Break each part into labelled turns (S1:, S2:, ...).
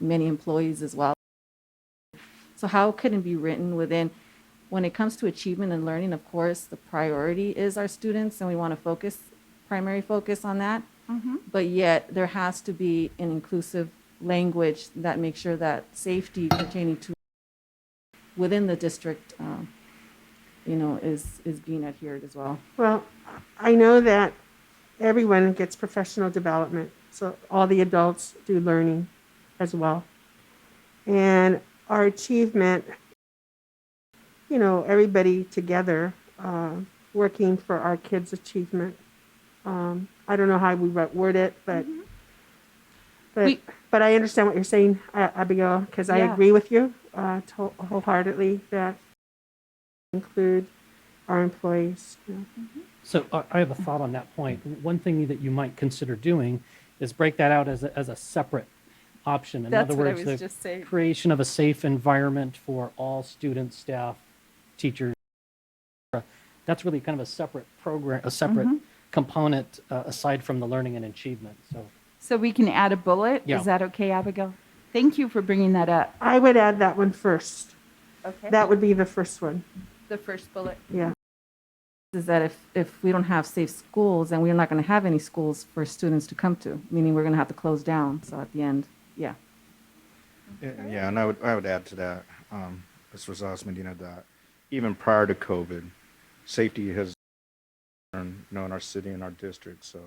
S1: many employees as well. So how could it be written within, when it comes to achievement and learning, of course, the priority is our students and we want to focus, primary focus on that. But yet there has to be an inclusive language that makes sure that safety pertaining to within the district, um, you know, is, is being adhered as well.
S2: Well, I know that everyone gets professional development, so all the adults do learning as well. And our achievement, you know, everybody together uh, working for our kids' achievement. Um, I don't know how we wo- word it, but but
S1: Mm-hmm. We-
S2: but I understand what you're saying, A- Abigail, because I
S1: Yeah.
S2: agree with you uh, to- wholeheartedly that include our employees. you know.
S3: So I I have a thought on that point. One thing that you might consider doing is break that out as a, as a separate option. In
S1: That's
S3: other
S1: what I
S3: words,
S1: was
S3: the
S1: just saying.
S3: creation of a safe environment for all students, staff, teachers. et cetera. That's really kind of a separate program, a separate
S1: Mm-hmm.
S3: component uh, aside from the learning and achievement. So
S4: So we can add a bullet?
S3: Yeah.
S4: Is that okay, Abigail? Thank you for bringing that up.
S2: I would add that one first.
S4: Okay.
S2: That would be the first one.
S4: The first bullet.
S2: Yeah.
S1: is that if, if we don't have safe schools, then we're not going to have any schools for students to come to, meaning we're going to have to close down. So at the end, yeah.
S5: Yeah, Yeah, and I would, I would add to that, um, Ms. Rosales Medina, that even prior to COVID, safety has been, you know, in our city and our district, so,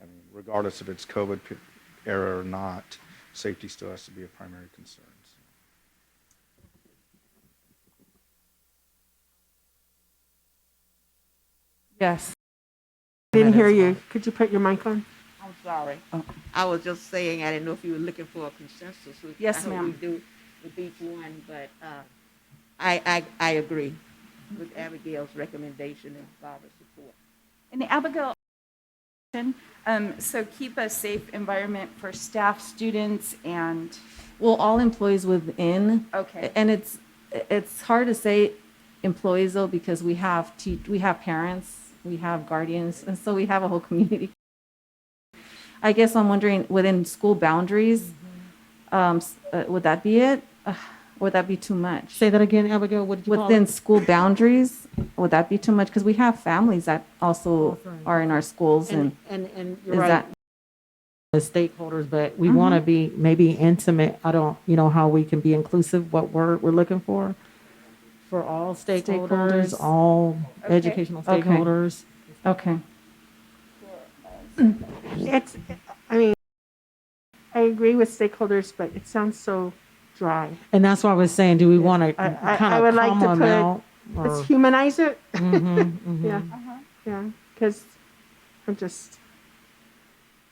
S5: I mean, regardless if it's COVID p- era or not, safety still has to be a primary concern. so.
S1: Yes.
S2: Didn't hear you. Could you put your mic on?
S6: I'm sorry.
S1: Oh.
S6: I was just saying, I didn't know if you were looking for a consensus. which
S1: Yes,
S6: I hope
S1: ma'am.
S6: we do with each one, but uh, I, I, I agree with Abigail's recommendation and Barbara's support.
S4: And Abigail, um, so keep a safe environment for staff, students, and,
S1: Well, all employees within.
S4: Okay.
S1: And it's, it's hard to say employees though, because we have te, we have parents, we have guardians, and so we have a whole community. I guess I'm wondering within school boundaries,
S7: Mm-hmm.
S1: um, s- uh, would that be it? Uh, Would that be too much?
S7: Say that again, Abigail, what did you call it?
S1: within school boundaries, would that be too much? Because we have families that also
S7: That's right.
S1: are in our schools and
S7: And, and, and
S1: is
S7: you're right,
S1: that,
S7: the stakeholders, but
S2: Mm-hmm.
S7: we want to be maybe intimate. I don't, you know, how we can be inclusive, what word we're looking for. For all stakeholders,
S1: Stakeholders.
S7: all educational
S1: Okay.
S7: stakeholders.
S1: okay.
S2: It's, I mean, I agree with stakeholders, but it sounds so dry.
S7: And that's why I was saying, do we want to
S2: I- I- I
S7: kind
S2: would
S7: of
S2: like to
S7: comma them
S2: put-
S7: out? or-
S2: Let's humanize it.
S7: Mhm, mhm.
S2: Yeah. Yeah. Because I'm just,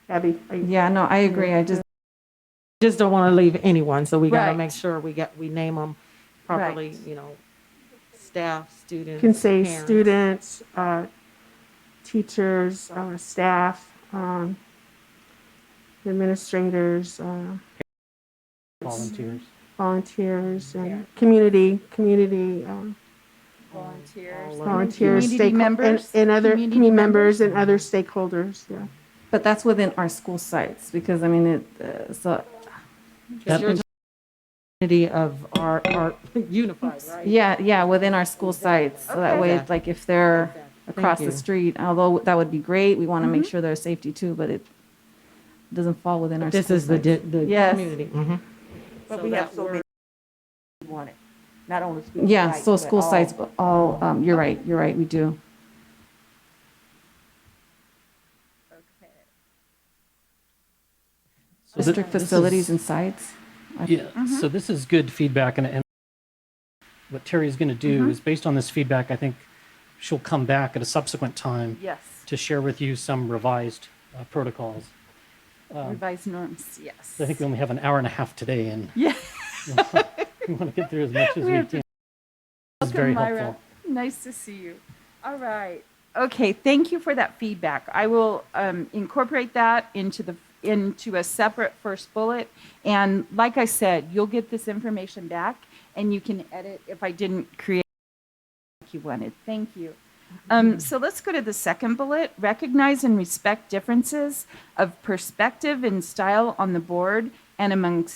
S2: Abby, I,
S1: Yeah, no, I agree. I just,
S7: Just don't want to leave anyone, so we got to
S4: Right.
S7: make sure we get, we name them properly, you know, staff, students.
S2: can say
S7: parents.
S2: students, uh, teachers, uh, staff, um, administrators, uh,
S3: volunteers.
S2: volunteers, and community, community. Um,
S4: volunteers.
S2: volunteers,
S4: Community
S2: stake- and,
S4: members?
S2: and other
S4: Community
S2: community members and other stakeholders, yeah.
S1: but that's within our school sites because I mean, it, uh, so,
S7: Because you're talking Community of our, our unified, right?
S1: yeah, yeah, within our school sites. So that way,
S7: Okay.
S1: like if they're across the
S7: you.
S1: street, although that would be great, we want to make sure there's safety too, but it doesn't fall within our.
S7: This
S1: school
S7: is the,
S1: sites.
S7: di- the
S1: Yes.
S7: community. Mhm.
S6: But
S2: So
S6: we have
S2: that
S6: so many we want it, not only school sites.
S1: Yeah, so
S6: but
S1: school
S6: all-
S1: sites, but all, um, you're right, you're right, we do.
S3: So thi-
S1: District
S3: this is-
S1: facilities and Mm-hmm. sites.
S3: Yeah, so this is good feedback, and, and what Terry's going to do
S1: Mm-hmm.
S3: is based on this feedback, I think she'll come back at a subsequent time
S4: Yes,
S3: to share with you some revised uh, protocols.
S4: revised norms, yes.
S3: I think we only have an hour and a half today, and
S4: Yeah.
S3: we want to get through as much as we,
S4: have
S3: can. This is very
S4: Welcome, Myra.
S3: helpful.
S4: Nice to see you. All right. Okay, thank you for that feedback. I will um, incorporate that into the into a separate first bullet. And like I said, you'll get this information back, and you can edit if I didn't create what you wanted. Thank you.
S3: Mm-hmm.
S4: Um, so let's go to the second bullet. Recognize and respect differences of perspective and style on the board and amongst